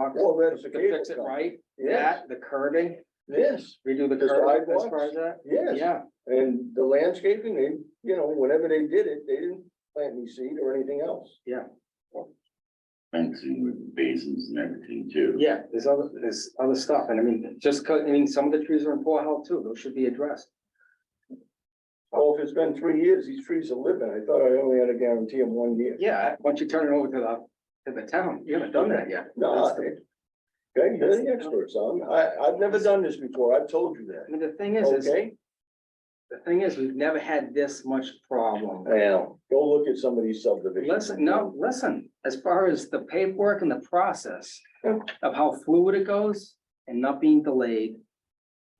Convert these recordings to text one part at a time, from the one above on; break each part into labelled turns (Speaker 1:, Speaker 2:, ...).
Speaker 1: Well, that's
Speaker 2: To
Speaker 1: the cable
Speaker 2: fix it
Speaker 1: company.
Speaker 2: right,
Speaker 1: Yes,
Speaker 2: that, the curving,
Speaker 1: yes,
Speaker 2: redo the
Speaker 1: The
Speaker 2: curve as far
Speaker 1: sidewalks?
Speaker 2: as that,
Speaker 1: yes.
Speaker 2: yeah,
Speaker 1: And the landscaping, they, you know, whenever they did it, they didn't plant any seed or anything else.
Speaker 3: fencing with basins and everything too.
Speaker 2: yeah, there's other, there's other stuff, and I mean, just, 'cause- I mean, some of the trees are in poor health too, those should be addressed.
Speaker 1: Well, if it's been three years, these trees are living. I thought I only had to guarantee them one year.
Speaker 2: Yeah, once you turn it over to the, to the town, you haven't done that yet.
Speaker 1: No, I- okay, you're the experts on, I, I've never done this before. I've told you
Speaker 2: I
Speaker 1: that.
Speaker 2: mean, the thing is, is,
Speaker 1: Okay?
Speaker 2: the thing is, we've never had this much problem.
Speaker 1: Now, go look at some of these subdivisions.
Speaker 2: Listen, no, listen, as far as the paperwork and the process of how fluid it goes and not being delayed.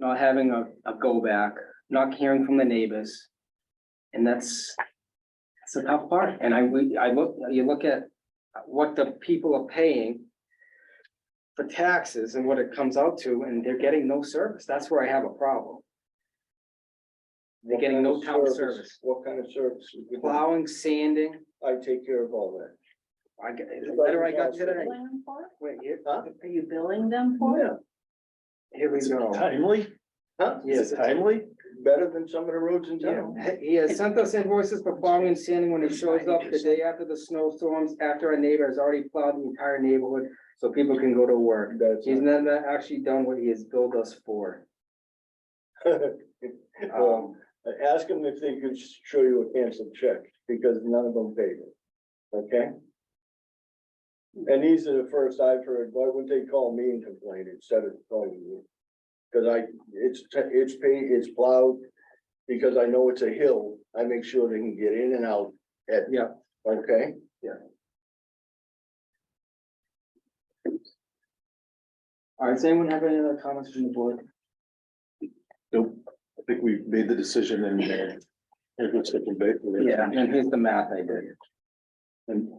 Speaker 2: Not having a, a go back, not hearing from the neighbors. And that's, it's a tough part. And I, we, I look, you look at what the people are paying. For taxes and what it comes out to, and they're getting no service. That's where I have a problem. They're getting no
Speaker 1: What kind
Speaker 2: town
Speaker 1: of
Speaker 2: service.
Speaker 1: What kind of service? would you do?
Speaker 2: Plowing, sanding,
Speaker 1: I take care of all that.
Speaker 2: I, get- the letter I got today.
Speaker 4: billing them for?
Speaker 2: Wait, here,
Speaker 1: Huh?
Speaker 4: Are you billing them for? it?
Speaker 2: here we go.
Speaker 5: Timely,
Speaker 1: Huh?
Speaker 2: Yes,
Speaker 5: timely.
Speaker 1: Better than some of the roads in
Speaker 2: Yeah,
Speaker 1: town.
Speaker 2: he has sent us invoices for plowing and sanding when it shows up the day after the snowstorms, after our neighbor has already plowed the entire neighborhood, so people can go to work.
Speaker 1: That's.
Speaker 2: He's not, not actually done what he has billed us for.
Speaker 1: Well,
Speaker 2: Um,
Speaker 1: Ask them if they could show you a canceled check, because none of them paid it, okay? And these are the first I've heard, why wouldn't they call me and complain instead of calling you? Cause I, it's, te- it's paid, it's plowed, because I know it's a hill, I make sure they can get in and out at.
Speaker 2: Yeah.
Speaker 1: Okay?
Speaker 2: all right, does anyone have any other comments from the board?
Speaker 5: Nope, I think we made the decision and. uh, it was taken back.
Speaker 2: Yeah, and here's the math I did.
Speaker 5: And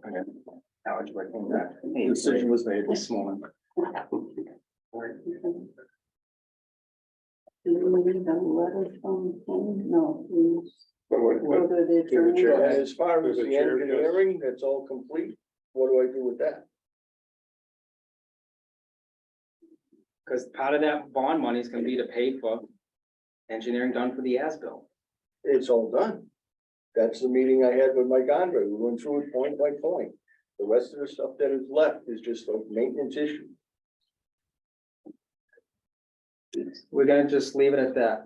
Speaker 2: Algebra came back.
Speaker 5: the decision was made.
Speaker 2: This morning.
Speaker 4: Do we need a letter from him? No. we just go to the
Speaker 5: to the
Speaker 4: attorney.
Speaker 5: chair.
Speaker 1: And as far as the
Speaker 5: Through the chair, yes.
Speaker 1: engineering, that's all complete, what do I do with that?
Speaker 2: Cause part of that bond money is gonna be to pay for engineering done for the ASBIL.
Speaker 1: it's all done. That's the meeting I had with Mike Andre. We went through it point by point. The rest of the stuff that is left is just a maintenance issue.
Speaker 2: We're gonna just leave it at that.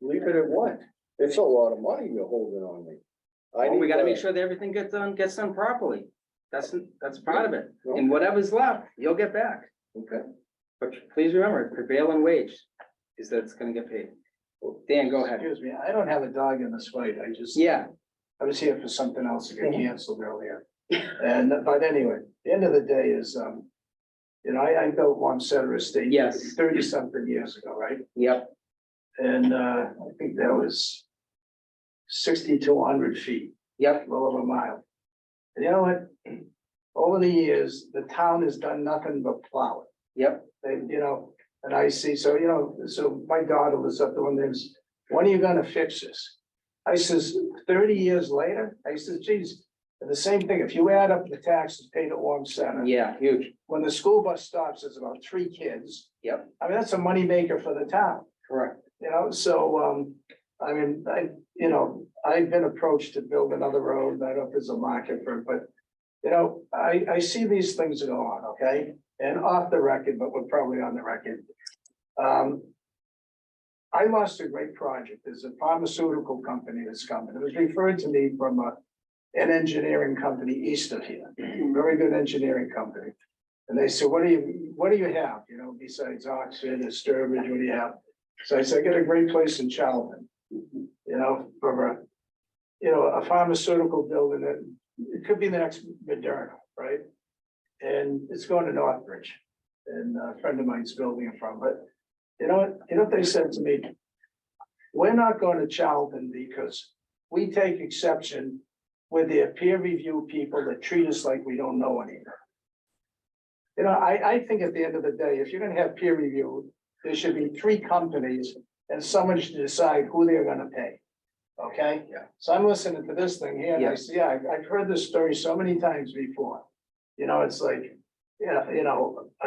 Speaker 1: Leave it at what? It's a lot of money you're holding on me. I
Speaker 2: Well, we
Speaker 1: need,
Speaker 2: gotta make
Speaker 1: uh,
Speaker 2: sure that everything gets done, gets done properly. That's, that's part of it.
Speaker 1: no,
Speaker 2: And whatever's left, you'll get back.
Speaker 1: Okay,
Speaker 2: But please remember, prevailing wage is that it's gonna get paid. Dan, go ahead.
Speaker 6: Excuse me, I don't have a dog in this fight. I just,
Speaker 2: Yeah,
Speaker 6: I was here for something else that got canceled earlier. And, but anyway, the end of the day is, um, you know, I, I built one center estate.
Speaker 2: Yes.
Speaker 6: Thirty something years ago, right?
Speaker 2: yep,
Speaker 6: And, uh, I think that was sixty-two hundred feet,
Speaker 2: yep,
Speaker 6: a little over a mile. And you know what? Over the years, the town has done nothing but plow it.
Speaker 2: yep.
Speaker 6: They, you know, and I see, so, you know, so my daughter was up there one day, and says, when are you gonna fix this? I says, thirty years later, I says, geez, and the same thing, if you add up the taxes paid at Warm Center.
Speaker 2: Yeah, huge.
Speaker 6: When the school bus stops, there's about three kids.
Speaker 2: Yep.
Speaker 6: I mean, that's a moneymaker for the town,
Speaker 2: Correct.
Speaker 6: you know, so, um, I mean, I, you know, I've been approached to build another road, I don't know if there's a market for it, but. You know, I, I see these things go on, okay, and off the record, but we're probably on the record. Um. I lost a great project, there's a pharmaceutical company that's coming, it was referred to me from a. An engineering company east of here, very good engineering company. And they said, what do you, what do you have, you know, besides Oxford and Sturbridge, what do you have? So I said, I got a great place in Charlton, you know, for a, you know, a pharmaceutical building that, it could be the next Moderna, right? And it's going to Northbridge, and a friend of mine's building it from, but you know what, you know what they said to me? We're not going to Charlton because we take exception with their peer review people that treat us like we don't know anything. You know, I, I think at the end of the day, if you're gonna have peer review, there should be three companies and someone should decide who they're gonna pay. Okay?
Speaker 2: Yeah.
Speaker 6: So I'm listening to this thing here and I see, yeah, I've, I've heard this story so many times before. You know, it's like, yeah, you know, I